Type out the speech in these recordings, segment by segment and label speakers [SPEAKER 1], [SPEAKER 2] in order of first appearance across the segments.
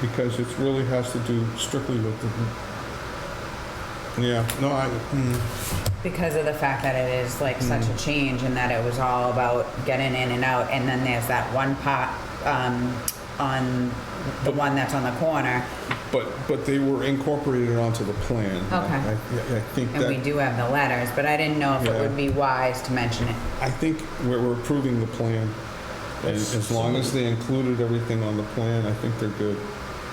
[SPEAKER 1] because it really has to do strictly with the, yeah, no, I, mm,
[SPEAKER 2] because of the fact that it is like such a change and that it was all about getting in and out and then there's that one pot um, on the one that's on the corner
[SPEAKER 1] but, but they were incorporated onto the plan.
[SPEAKER 2] Okay.
[SPEAKER 1] I- I, I think
[SPEAKER 2] and we
[SPEAKER 1] that,
[SPEAKER 2] do have the letters but i didn't know if
[SPEAKER 1] Yeah.
[SPEAKER 2] it would be wise to mention it
[SPEAKER 1] I think we're we're approving the plan. And as long as they included everything on the plan, I think they're good.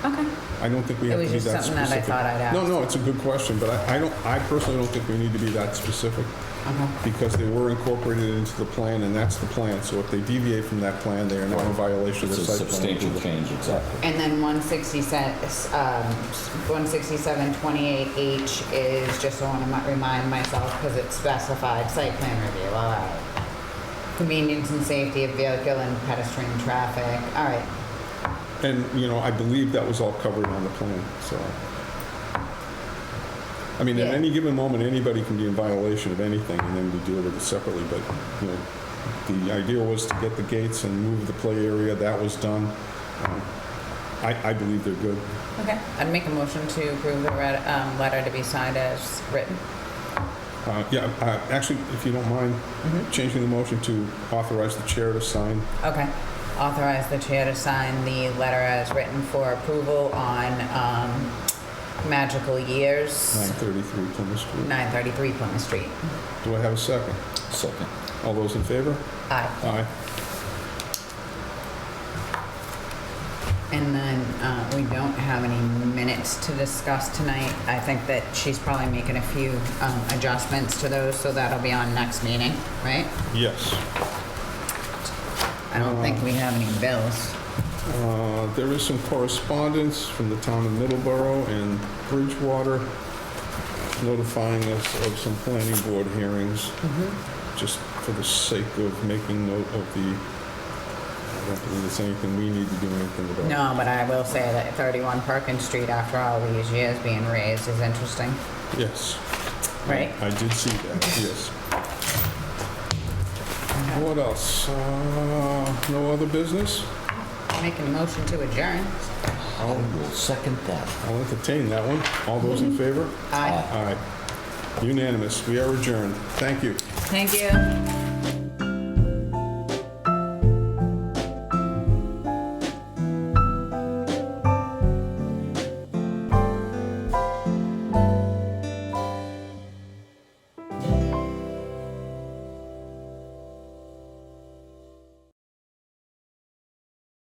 [SPEAKER 2] okay
[SPEAKER 1] I don't think we
[SPEAKER 2] It
[SPEAKER 1] have to
[SPEAKER 2] was
[SPEAKER 1] be
[SPEAKER 2] just
[SPEAKER 1] that specific.
[SPEAKER 2] something that I thought I'd
[SPEAKER 1] No,
[SPEAKER 2] ask.
[SPEAKER 1] no, it's a good question, but I, I don't, I personally don't think we need to be that specific
[SPEAKER 2] okay
[SPEAKER 1] because they were incorporated into the plan and that's the plan. So if they deviate from that plan, they are now in violation of
[SPEAKER 3] It's
[SPEAKER 1] the
[SPEAKER 3] a
[SPEAKER 1] site plan.
[SPEAKER 3] substantial change, exactly.
[SPEAKER 2] and then 167 um, 167 28h is just so i want to remind myself because it's specified site plan review all right convenience and safety of vehicle and pedestrian traffic all right
[SPEAKER 1] And, you know, I believe that was all covered on the plan, so. I mean, at
[SPEAKER 2] Yeah.
[SPEAKER 1] any given moment, anybody can be in violation of anything and then we deal with it separately, but, you know, the idea was to get the gates and move the play area. That was done. Um, I, I believe they're good.
[SPEAKER 2] Okay, I'd make a motion to approve the red, um, letter to be signed as written.
[SPEAKER 1] Uh, Yeah, uh, actually, if you don't mind, changing the motion to authorize the chair to sign.
[SPEAKER 2] Okay, authorize the chair to sign the letter as written for approval on, um, magical years,
[SPEAKER 1] 933 Plymouth Street.
[SPEAKER 2] nine thirty-three Plymouth Street.
[SPEAKER 1] Do I have a second?
[SPEAKER 3] Second.
[SPEAKER 1] All those in favor?
[SPEAKER 2] Aye,
[SPEAKER 1] Aye.
[SPEAKER 2] and then, uh, we don't have any minutes to discuss tonight. I think that she's probably making a few, um, adjustments to those, so that'll be on next meeting, right?
[SPEAKER 1] Yes.
[SPEAKER 2] I don't think we have any bills.
[SPEAKER 1] Uh, There is some correspondence from the town of Middleborough and Bridgewater notifying us of some planning board hearings, just for the sake of making note of the, I don't believe it's anything we need to do anything about.
[SPEAKER 2] No, but I will say that 31 Perkins Street, after all these years being raised, is interesting,
[SPEAKER 1] Yes.
[SPEAKER 2] right?
[SPEAKER 1] I did see that, yes. What else? Uh, No other business?
[SPEAKER 2] Making a motion to adjourn.
[SPEAKER 3] I will second that.
[SPEAKER 1] I'll entertain that one. All those in favor?
[SPEAKER 2] Aye.
[SPEAKER 1] All right. Unanimous. We are adjourned. Thank you.
[SPEAKER 2] Thank you.